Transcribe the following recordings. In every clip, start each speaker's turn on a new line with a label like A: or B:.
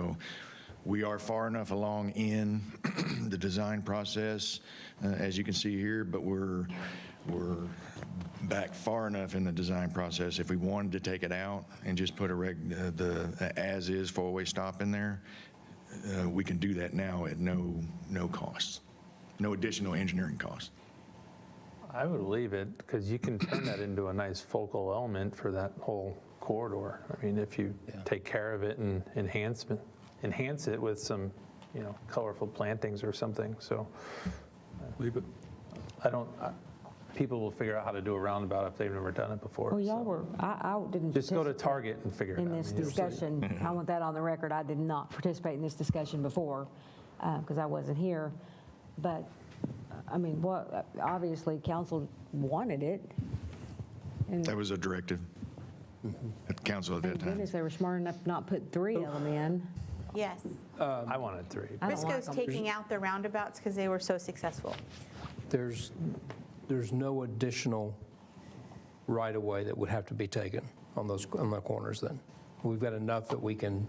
A: know, we are far enough along in the design process, uh, as you can see here, but we're, we're back far enough in the design process. If we wanted to take it out and just put a reg, uh, the as-is four-way stop in there, uh, we can do that now at no, no cost, no additional engineering cost.
B: I would leave it because you can turn that into a nice focal element for that whole corridor. I mean, if you take care of it and enhance, enhance it with some, you know, colorful plantings or something. So
C: Leave it.
B: I don't, I- people will figure out how to do a roundabout if they've never done it before.
D: Well, Oh, y'all
B: so.
D: were, I, I didn't.
B: Just go to
D: participate
B: Target and figure it out.
D: In this
B: I mean, you'll see.
D: discussion,
A: Mm-hmm.
D: I want that on the record, I did not participate in this discussion before, because I wasn't here. But, I mean, what, obviously, council wanted it.
A: That was a directive at council at that
D: Thank
A: time.
D: goodness they were smart enough to not put three of them in.
E: Yes.
B: I wanted three.
D: I don't like
E: Briscoe's
D: them.
E: taking out the roundabouts because they were so successful.
C: There's, there's no additional right-of-way that would have to be taken on those, on the corners then. We've got enough that we can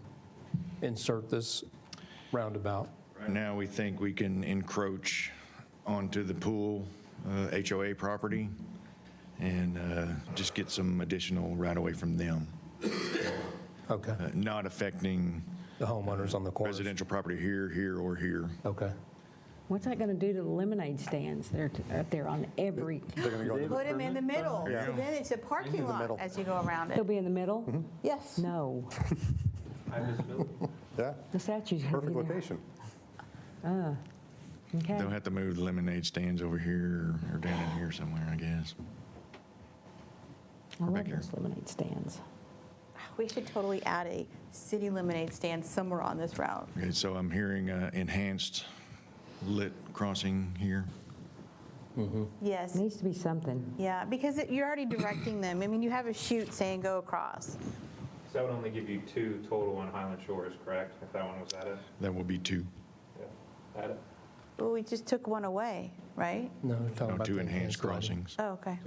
C: insert this roundabout.
A: Right Now, we think we can encroach onto the pool uh, HOA property and uh, just get some additional right-of-way from them,
C: Okay,
A: uh, not affecting
C: the homeowners on the corners.
A: residential property here, here, or here.
C: Okay.
D: What's that going to do to the lemonade stands? They're t- up there on every,
E: Put them in the middle. So then it's a parking lot as you go around
D: they'll
E: it.
D: be in the middle?
A: Mm-hmm.
E: Yes.
D: No,
F: Yeah,
D: the statue's going to be
F: perfect
D: there.
F: location.
D: Uh, Okay.
A: They'll have to move the lemonade stands over here or down in here somewhere, I guess.
D: I
A: back
D: love
A: here.
D: those lemonade stands.
E: We should totally add a city lemonade stand somewhere on this route.
A: Okay, so I'm hearing uh, enhanced lit crossing here.
E: Yes.
D: Needs to be something.
E: Yeah, because it- you're already directing them. I mean, you have a chute saying go across.
G: So that would only give you two total on Highland Shores, correct? If that one was added?
A: That will be two,
G: Yeah. Added.
E: Well, we just took one away, right?
C: No, we're talking
A: no,
C: Oh, about.
A: two
C: the
A: enhanced
C: lighting.
A: crossings.
E: Oh, okay.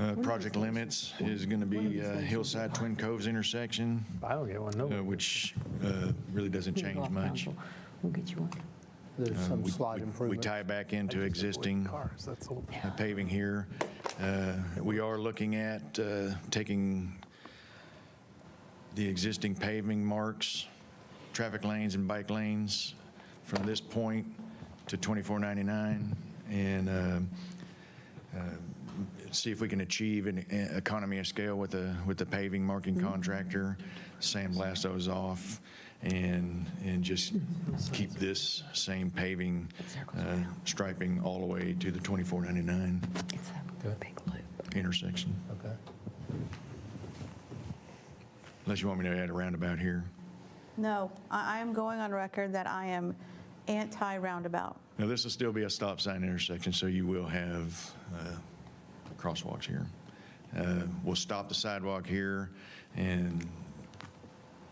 A: Uh, Project Limits is going to be uh, Hillside Twin Coves intersection,
B: I don't get one,
A: uh,
B: no.
A: which uh, really doesn't
D: Here you go,
A: change much.
D: Council. We'll get you one.
C: There's some
A: Uh,
C: slight
A: We-
C: improvement.
A: We tie back into existing
B: Cars, that's all.
A: uh, paving here. Uh, We are looking at uh, taking the existing paving marks, traffic lanes and bike lanes from this point to 2499 and uh, see if we can achieve an e- economy of scale with the, with the paving marking contractor, sandblast those off, and, and just keep this same paving, uh, striping all the way to the 2499
D: It's a big loop.
A: intersection.
C: Okay.
A: Unless you want me to add a roundabout here.
E: No, I I am going on record that I am anti-roundabout.
A: Now, this will still be a stop sign intersection, so you will have uh, crosswalks here. Uh, We'll stop the sidewalk here, and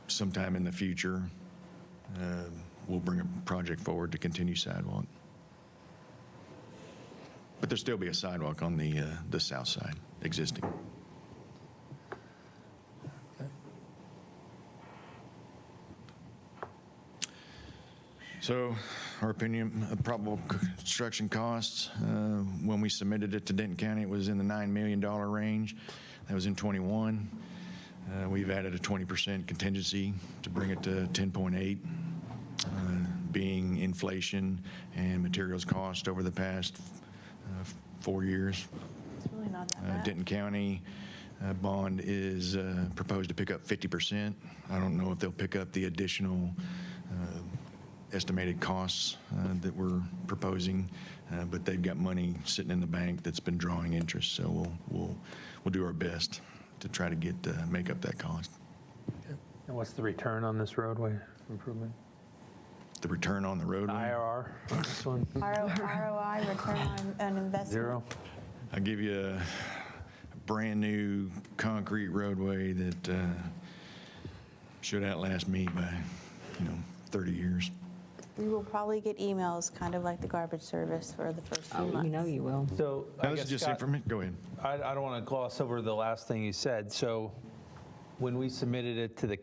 A: sometime in the future, uh, we'll bring a project forward to continue sidewalk. But there'll still be a sidewalk on the, uh, the south side, existing. So our opinion, uh, probable construction costs, uh, when we submitted it to Denton County, it was in the $9 million range. That was in '21. Uh, We've added a 20% contingency to bring it to 10.8, uh, being inflation and materials cost over the past uh, four years.
E: It's really not that
A: Uh,
E: bad.
A: Denton County uh, bond is uh, proposed to pick up 50%. I don't know if they'll pick up the additional uh, estimated costs uh, that we're proposing, uh, but they've got money sitting in the bank that's been drawing interest, so we'll, we'll, we'll do our best to try to get, uh, make up that cost.
B: And what's the return on this roadway improvement?
A: The return on the roadway,
B: IRR on this one?
E: ROI, return on on investment.
B: Zero?
A: I give you a brand-new concrete roadway that uh, should outlast me by, you know, 30 years.
E: We will probably get emails, kind of like the garbage service for the first few
D: Oh, You know
E: months.
D: you will.
H: So I
A: Now, this
H: guess,
A: is just
H: Scott,
A: information, go ahead.
H: I I don't want to gloss over the last thing you said. So when we submitted it to the